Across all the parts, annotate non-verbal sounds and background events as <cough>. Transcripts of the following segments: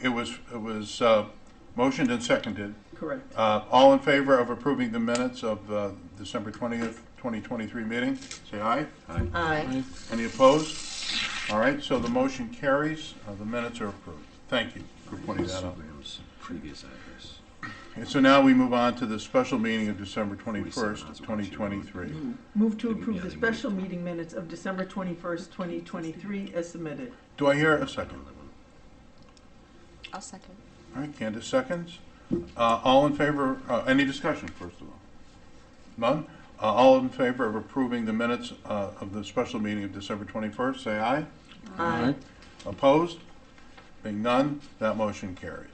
it was, it was uh, motioned and seconded. Correct. Uh, All in favor of approving the minutes of uh, December 20th, 2023 meeting, say aye. Aye. Any opposed? All right, so the motion carries, Uh, the minutes are approved. Thank you for pointing that out. Graham's previous address. And so now we move on to the special meeting of December said 21st, that's what she 2023. Move to approve the special meeting minutes of December 21st, 2023 as submitted. Do I hear a second? I'll second. All right, Candace seconds. Uh, All in favor, uh, any discussion, first of all? None? Uh, All in favor of approving the minutes uh, of the special meeting of December 21st, say aye. Aye. Opposed? Being none, that motion carries.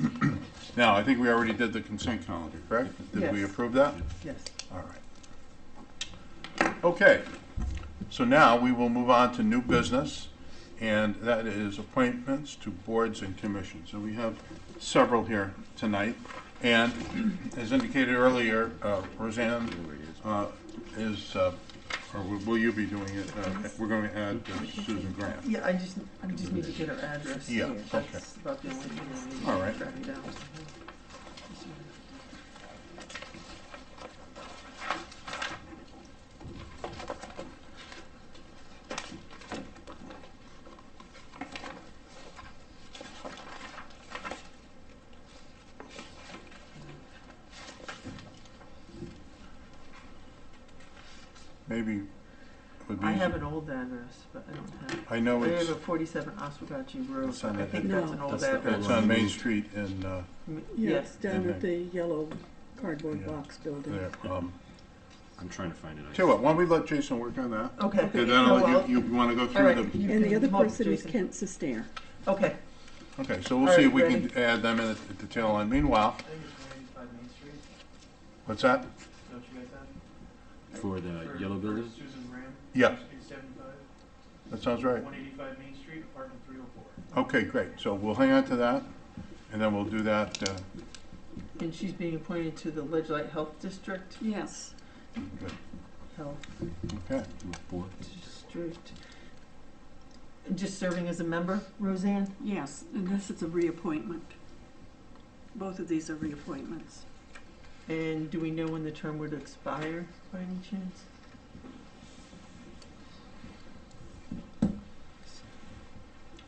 <clears throat> Now, I think we already did the consent calendar, correct? Did we Yes. approve that? Yes. All right. Okay, so now we will move on to new business, and that is appointments to boards and commissions. And we have several here tonight. And as indicated earlier, uh, Roseanne uh, is, uh, or will will you be doing it? Uh, We're going to add uh, Susan Grant. Yeah, I just, I just need to get her address Yeah, here. okay. That's about the only thing I need. to All right. track down. Maybe it would be. I have an old address, but I don't have, I know I it's, have a 47 Oswegatchie Road, It's but on I the- think that's an old That's the old it's address. one. on Main Street in, uh, M- Yes, Yes, down at the Okay. yellow cardboard Mm-hmm. Yeah. box building. there. Um, I'm trying to find it. I- Tell you what, why don't we let Jason work on that? okay. Okay, Oh, then well, you, you want to go all through right, the you And the can other vote, person is Jason. Kent Sestair. Okay, Okay, so we'll All see right, if we can add them in at the tail end. Meanwhile, I think it's one eighty-five Main Street, what's that? don't you guys have? For the For- Uh, yellow for building? Susan Graham. Yeah. Street seventy-five, That sounds right. one eighty-five Main Street, apartment three oh four. Okay, great. So we'll hang on to that, and then we'll do that. uh, and she's being appointed to the Ledge Light Health District, Yes. good. Health Okay, Four. District. Just serving as a member, Roseanne? Yes, and this is a reappointment. Both of these are reappointments. And do we know when the term would expire by any chance?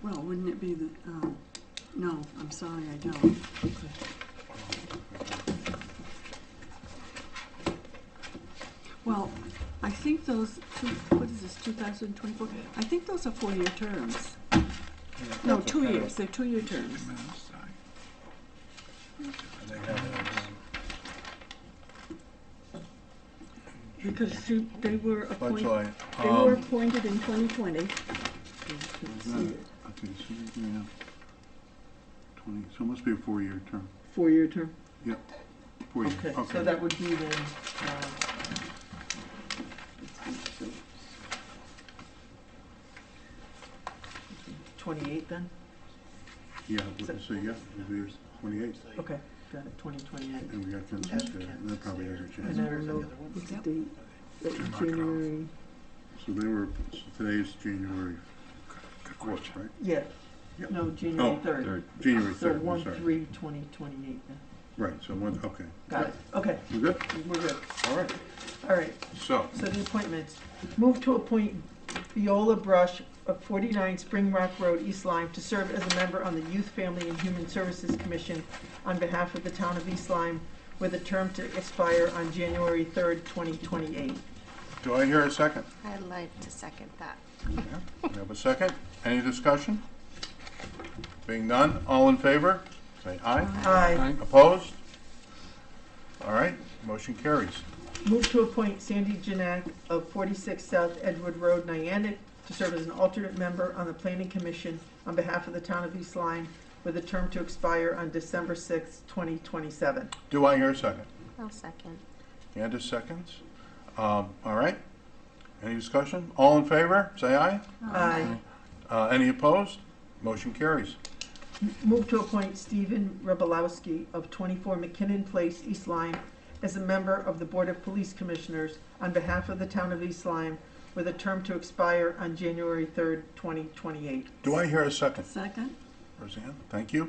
Well, wouldn't it be the, um, no, I'm sorry, I don't. Well, I think those, two what is this, 2024? I think those are four-year terms. No, two years, they're two-year terms. Because you- they were let's, appointed, uh, they were um, appointed in 2020. Uh-huh. okay, so, yeah, twenty, so it must be a four-year term. Four-year term. Yep. Four-year, Okay, so okay. that would be then, uh, twenty-eight then? Yeah, so yeah, it'd be twenty-eight, Okay, got it, twenty twenty-eight. and we got consensus there, and that probably hasn't And I changed. don't know, What's the date? Mark it off. January, So they were, so today's January fourth, right? yeah, Yep. no, January Oh, third, Third. January so third, I'm one, sorry. three, twenty twenty-eight then. Right, so one, okay. Got it, okay, We good? we're good, All right. all right. So, So the appointments. Move to appoint Viola Brush of 49 Spring Rock Road, East Lyme, to serve as a member on the Youth, Family, and Human Services Commission on behalf of the town of East Lyme, with a term to expire on January 3rd, 2028. do I hear a second? I'd like to second that. We have a second. Any discussion? Being none, all in favor, say aye. Aye. Opposed? All right, motion carries. Move to appoint Sandy Janak of 46 South Edward Road, Niantic, to serve as an alternate member on the Planning Commission on behalf of the town of East Lyme, with a term to expire on December 6th, 2027. Do I hear a second? I'll second. Candace seconds. Um, All right. Any discussion? All in favor, say aye. Aye. Uh, Any opposed? Motion carries. Move to appoint Stephen Rebelowski of 24 McKinnon Place, East Lyme, as a member of the Board of Police Commissioners on behalf of the town of East Lyme, with a term to expire on January 3rd, 2028. Do I hear a second? second? Roseanne, thank you.